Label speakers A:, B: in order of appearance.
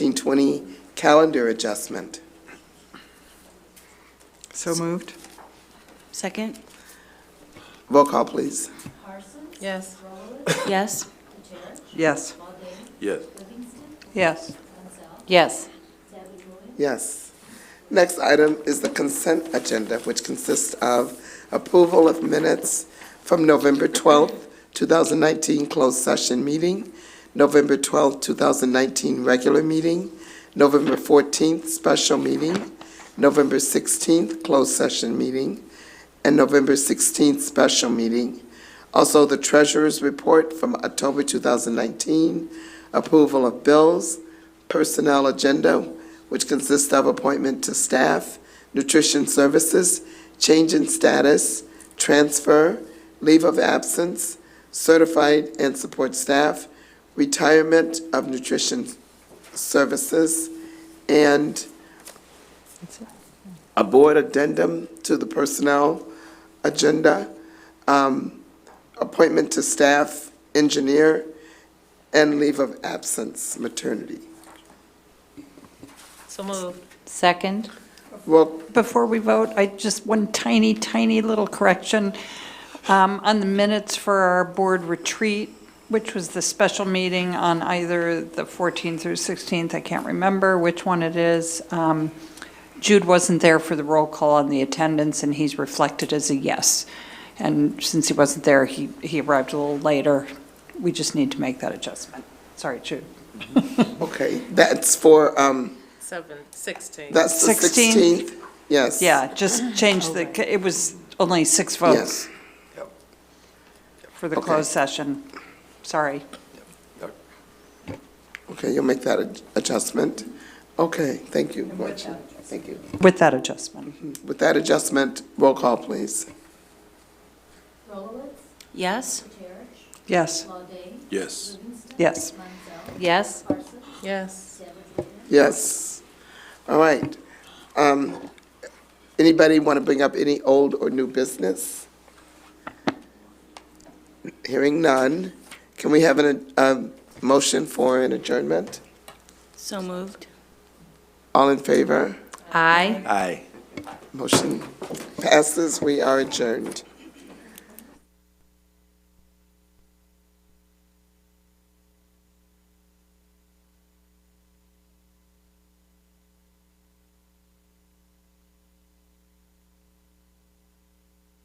A: 1920 calendar adjustment.
B: So moved?
C: Second?
A: Roll call, please.
C: Yes. Yes?
B: Yes.
D: Yes.
B: Yes.
C: Yes.
A: Yes. Next item is the consent agenda, which consists of approval of minutes from November 12th, 2019 closed session meeting, November 12th, 2019 regular meeting, November 14th special meeting, November 16th closed session meeting, and November 16th special meeting. Also, the treasurer's report from October 2019, approval of bills, personnel agenda, which consists of appointment to staff, nutrition services, change in status, transfer, leave of absence, certified and support staff, retirement of nutrition services, and a board addendum to the personnel agenda, um, appointment to staff, engineer, and leave of absence, maternity.
C: So moved. Second?
A: Well,
E: Before we vote, I just, one tiny, tiny little correction. Um, On the minutes for our board retreat, which was the special meeting on either the 14th or 16th, I can't remember which one it is. um, Jude wasn't there for the roll call on the attendance, and he's reflected as a yes. And since he wasn't there, he, he arrived a little later. We just need to make that adjustment. Sorry, Jude.
A: okay, that's for, um,
F: Seven, sixteen.
A: that's the
E: 16th?
A: sixteenth? Yes.
E: Yeah, just change the, it was only six
A: Yes.
E: votes. for the
A: Okay.
E: closed session. Sorry.
A: Okay, you'll make that ad- adjustment. Okay, thank you, Gretchen. Thank you.
E: With that adjustment.
A: With that adjustment, roll call, please.
G: Rolowitz,
C: Yes?
G: Kucera,
E: Yes,
G: Lawbane,
D: Yes.
G: Livingston,
E: yes.
G: Monzel,
C: Yes?
G: Parsons,
F: Yes.
G: Deveraux.
A: Yes. All right. Um, Anybody want to bring up any old or new business? Hearing none, can we have an, a motion for an adjournment?
C: So moved.
A: All in favor?
C: Aye.
D: Aye.
A: Motion passes, we are adjourned.